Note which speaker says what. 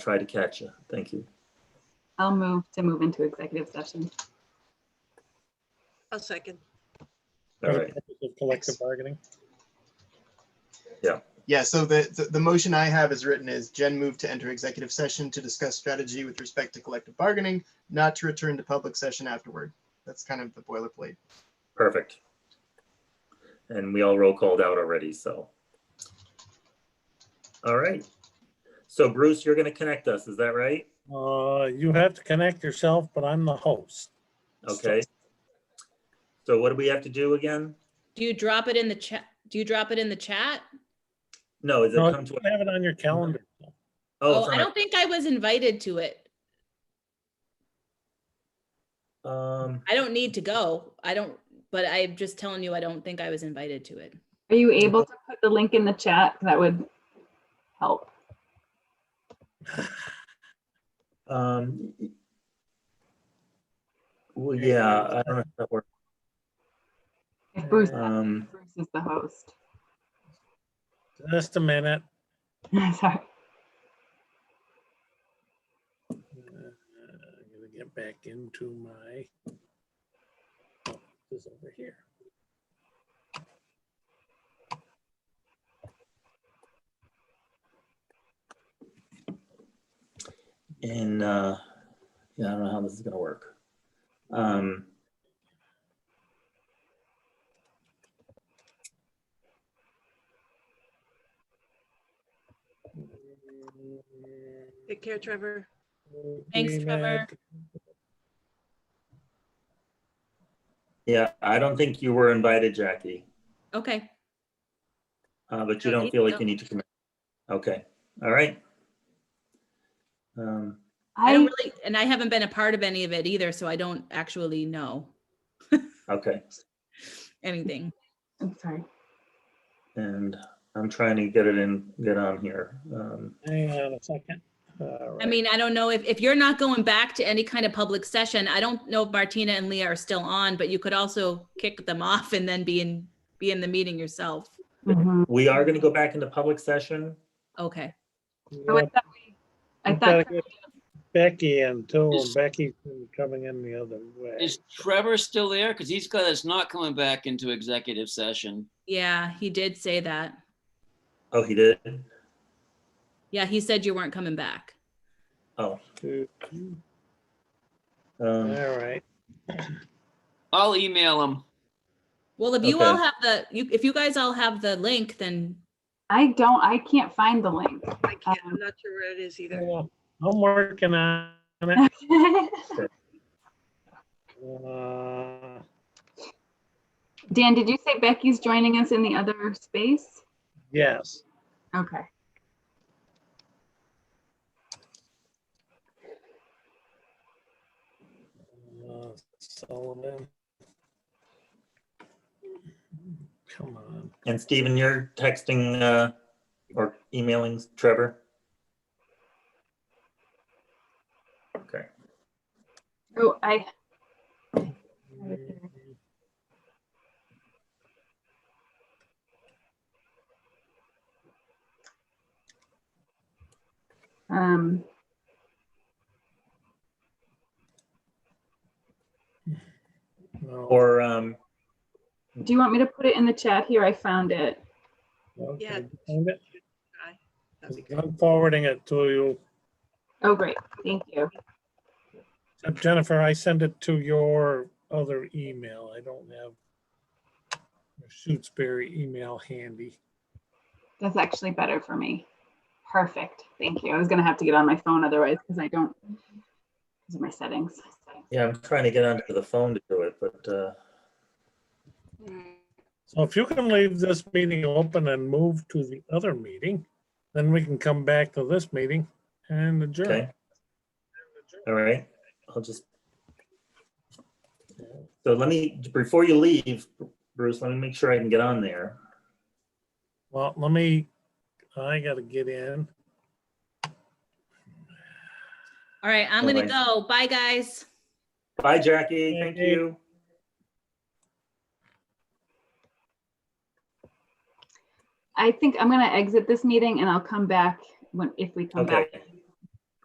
Speaker 1: try to catch you. Thank you.
Speaker 2: I'll move to move into executive session.
Speaker 3: I'll second.
Speaker 1: All
Speaker 4: for the
Speaker 1: right.
Speaker 4: purpose of Collective bargaining.
Speaker 5: Yeah, so the, the, the motion I have as written is Jen moved to enter executive session to discuss strategy with respect to collective bargaining, not to return to public session afterward. That's kind of the boilerplate.
Speaker 1: Perfect. And we all roll called out already, so. All right. So Bruce, you're going to connect us, is that right?
Speaker 4: Uh, you have to connect yourself, but I'm the host.
Speaker 1: Okay. So what do we have to do again?
Speaker 6: Do you drop it in the chat? Do you drop it in the chat?
Speaker 1: No, is it
Speaker 4: No,
Speaker 1: come to?
Speaker 4: you have it on your calendar.
Speaker 1: Oh,
Speaker 6: Oh,
Speaker 1: it's
Speaker 6: I
Speaker 1: on
Speaker 6: don't think I was invited to it.
Speaker 1: a- um,
Speaker 6: I don't need to go. I don't, but I'm just telling you, I don't think I was invited to it.
Speaker 2: Are you able to put the link in the chat? That would help.
Speaker 1: um. Well, yeah, I don't know if that works.
Speaker 2: If Bruce,
Speaker 1: Um,
Speaker 2: Bruce is the host.
Speaker 4: Just a minute.
Speaker 2: Sorry.
Speaker 4: Uh, I'm gonna get back into my. oh, This is over here.
Speaker 1: and, uh, yeah, I don't know how this is gonna work. Um.
Speaker 3: Take care, Trevor.
Speaker 6: Thanks, Trevor.
Speaker 1: Yeah, I don't think you were invited, Jackie,
Speaker 6: Okay.
Speaker 1: uh, but you
Speaker 6: No,
Speaker 1: don't
Speaker 6: you-
Speaker 1: feel like
Speaker 6: no.
Speaker 1: you need to commit. Okay, all right. Um,
Speaker 6: I
Speaker 2: I,
Speaker 6: don't really, and I haven't been a part of any of it either, so I don't actually know
Speaker 1: okay,
Speaker 6: anything.
Speaker 2: I'm sorry.
Speaker 1: and I'm trying to get it in, get on here. Um,
Speaker 4: Hang on a second. All
Speaker 6: I
Speaker 4: right.
Speaker 6: mean, I don't know if, if you're not going back to any kind of public session, I don't know if Martina and Leah are still on, but you could also kick them off and then be in, be in the meeting yourself.
Speaker 2: Mhm.
Speaker 1: we are gonna go back into public session.
Speaker 6: Okay.
Speaker 2: So I
Speaker 4: Yeah,
Speaker 2: thought we- I
Speaker 4: we've gotta
Speaker 2: thought,
Speaker 4: get Becky in too. and
Speaker 7: Is-
Speaker 4: Becky's been coming in the other way.
Speaker 7: Is Trevor still there? Because he's got us not coming back into executive session.
Speaker 6: Yeah, he did say that.
Speaker 1: Oh, he did?
Speaker 6: Yeah, he said you weren't coming back.
Speaker 1: Oh,
Speaker 4: Two. All
Speaker 1: um,
Speaker 4: right.
Speaker 7: I'll email him.
Speaker 6: Well, if you all
Speaker 1: Okay.
Speaker 6: have the, you, if you guys all have the link, then
Speaker 2: I don't, I can't find the link.
Speaker 3: I can't, I'm not sure where it is either.
Speaker 4: Yeah, I'm working on it. Uh,
Speaker 2: Dan, did you say Becky's joining us in the other space?
Speaker 4: Yes,
Speaker 2: Okay.
Speaker 4: uh, Sullivan. Come on,
Speaker 1: and Stephen, you're texting, uh, or emailing Trevor? Okay,
Speaker 2: Oh, I, um,
Speaker 4: no,
Speaker 1: or, um,
Speaker 2: do you want me to put it in the chat here? I found it.
Speaker 3: Yeah.
Speaker 4: okay, find it.
Speaker 3: That'd be good.
Speaker 4: I'm forwarding it to you.
Speaker 2: Oh, great. Thank you.
Speaker 4: Uh, Jennifer, I send it to your other email. I don't have your Shutesbury email handy.
Speaker 2: That's actually better for me. Perfect. Thank you. I was gonna have to get on my phone otherwise because I don't. These are my settings.
Speaker 1: yeah, I'm trying to get onto the phone to do it, but, uh,
Speaker 4: So if you can leave this meeting open and move to the other meeting, then we can come back to this meeting and adjourn.
Speaker 1: Okay. All right, I'll just. So let me, before you leave, Bruce, let me make sure I can get on there.
Speaker 4: Well, let me, I gotta get in.
Speaker 6: all right, I'm gonna
Speaker 1: Bye-bye.
Speaker 6: go. Bye, guys.
Speaker 1: Bye, Jackie. Thank you.
Speaker 2: I think I'm gonna exit this meeting and I'll come back when, if we come back.
Speaker 1: Okay.